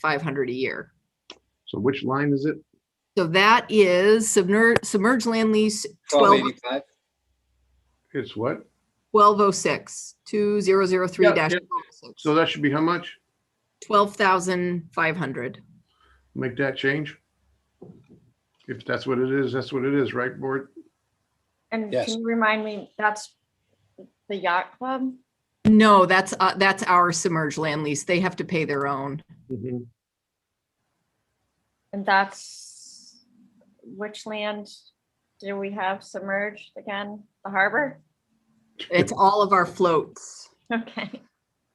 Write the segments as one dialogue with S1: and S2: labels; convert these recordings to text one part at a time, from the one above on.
S1: five hundred a year.
S2: So which line is it?
S1: So that is submerged, submerged land lease
S3: Twelve
S1: 12
S3: eighty-five.
S2: It's what?
S1: 1206, 2003
S2: Yeah,
S1: dash
S2: yeah. So that should be how much?
S1: 12,500.
S2: Make that change? If that's what it is, that's what it is, right, board?
S4: And
S3: Yes.
S4: can you remind me, that's the yacht club?
S1: No, that's, uh, that's our submerged land lease. They have to pay their own.
S4: And that's which land do we have submerged again? The harbor?
S1: It's all of our floats.
S4: Okay.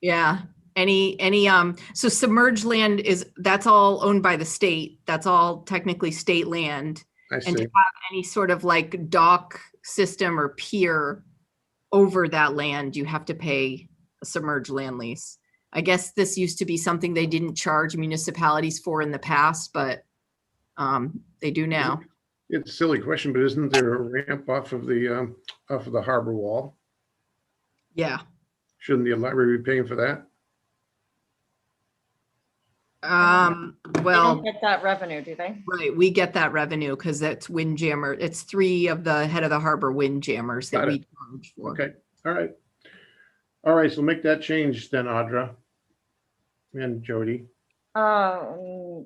S1: Yeah. Any, any, um, so submerged land is, that's all owned by the state. That's all technically state land.
S2: I
S1: And to
S2: see.
S1: have any sort of like dock system or pier over that land, you have to pay a submerged land lease. I guess this used to be something they didn't charge municipalities for in the past, but um, they do now.
S2: It's a silly question, but isn't there a ramp off of the, um, off of the harbor wall?
S1: Yeah.
S2: Shouldn't the library be paying for that?
S1: Um,
S4: They don't
S1: well,
S4: get that revenue, do they?
S1: right, we get that revenue because that's windjammer. It's three of the head of the harbor windjammers that
S2: Got it.
S1: we charge for.
S2: Okay, all right. All right, so make that change then, Audra. And Jody.
S4: Um.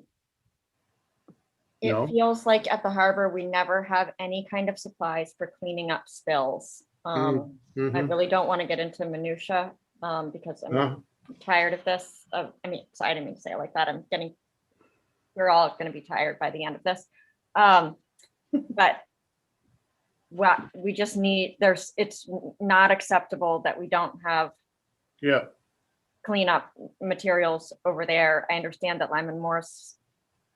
S2: No.
S4: It feels like at the harbor, we never have any kind of supplies for cleaning up spills. Um, I
S2: Mhm.
S4: really don't want to get into minutia, um, because I'm
S2: Uh,
S4: tired of this. Of, I mean, sorry, I didn't mean to say it like that. I'm getting, we're all gonna be tired by the end of this. Um, but what, we just need, there's, it's not acceptable that we don't have
S2: Yeah,
S4: cleanup materials over there. I understand that Lyman Morris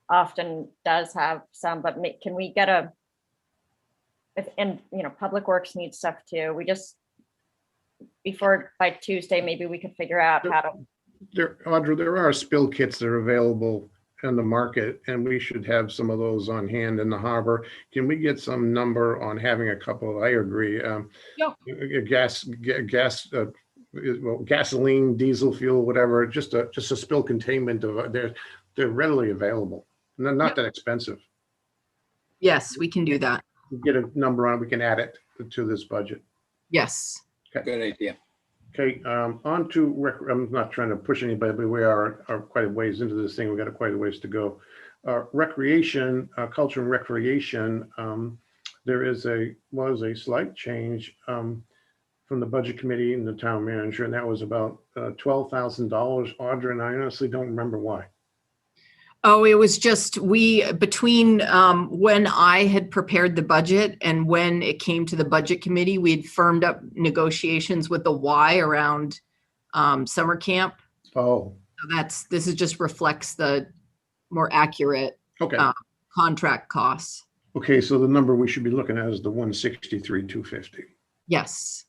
S4: often does have some, but ma- can we get a? If, and, you know, Public Works needs stuff too. We just, before, by Tuesday, maybe we could figure out how to
S2: there, Audra, there are spill kits that are available in the market and we should have some of those on hand in the harbor. Can we get some number on having a couple? I agree. um,
S1: Yeah.
S2: a- a Gas, ga- gas, uh, is- well, gasoline, diesel fuel, whatever, just a, just a spill containment of, uh, they're, they're readily available. and they're
S1: Yeah.
S2: not that expensive.
S1: Yes, we can do that.
S2: Get a number on, it, we can add it to this budget.
S1: Yes.
S3: Good idea.
S2: Okay, um, on to, rec- I'm not trying to push anybody, but we are, are quite a ways into this thing. We've got quite a ways to go. Uh, recreation, uh, culture and recreation, um, there is a, was a slight change, um, from the budget committee and the town manager, and that was about, uh, twelve thousand dollars. Audra and I honestly don't remember why.
S1: Oh, it was just, we, between um, when I had prepared the budget and when it came to the budget committee, we had firmed up negotiations with the Y around um, summer camp.
S2: Oh,
S1: So That's, this is just reflects the more accurate
S2: okay.
S1: Uh. contract costs.
S2: Okay, so the number we should be looking at is the one sixty-three, two fifty.
S1: Yes.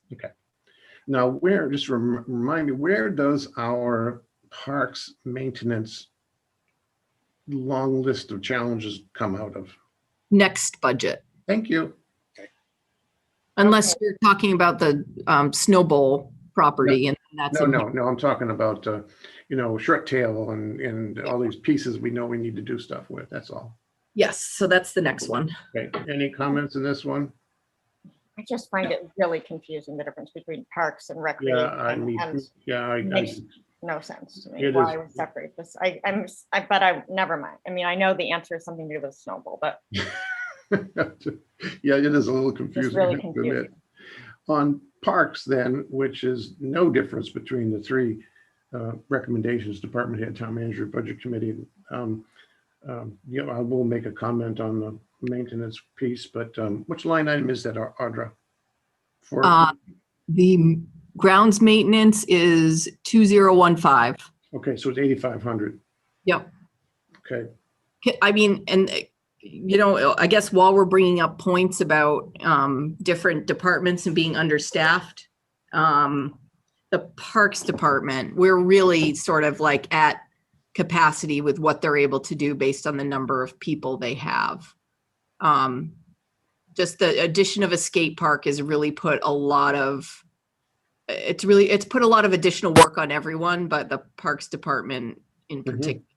S2: Now, where, just rem- remind me, where does our parks maintenance long list of challenges come out of?
S1: Next budget,
S2: Thank you.
S1: unless you're talking about the um, Snow Bowl property and that's.
S2: No,
S1: in-
S2: no, no, I'm talking about, uh, you know, short tail and, and all these pieces we know we need to do stuff with, that's all.
S1: Yes, so that's the next one.
S2: Okay, any comments in this one?
S4: I just find it really confusing, the difference between parks and
S2: Yeah, I mean,
S4: recreation, and
S2: yeah, I, I,
S4: makes no sense to me,
S2: It
S4: why
S2: is-
S4: we separate this, I, I'm, s- I, but I, never mind, I mean, I know the answer is something to do with snowball, but
S2: yeah, it is a little
S4: it's
S2: confusing. I
S4: really
S2: have to admit.
S4: confusing.
S2: On parks then, which is no difference between the three uh, recommendations, department head, town manager, budget committee. um, um, You know, I will make a comment on the maintenance piece, but um, which line item is that, Au- Audra? For,
S1: Uh, The grounds maintenance is 2015.
S2: okay, so it's 8,500.
S1: Yep.
S2: Okay,
S1: K- I mean, and, uh, you know, uh, I guess while we're bringing up points about um, different departments and being understaffed, um, the Parks Department, we're really sort of like at capacity with what they're able to do based on the number of people they have. Um, Just the addition of a skate park has really put a lot of, it's really, it's put a lot of additional work on everyone, but the Parks Department in
S2: Mhm.
S1: particular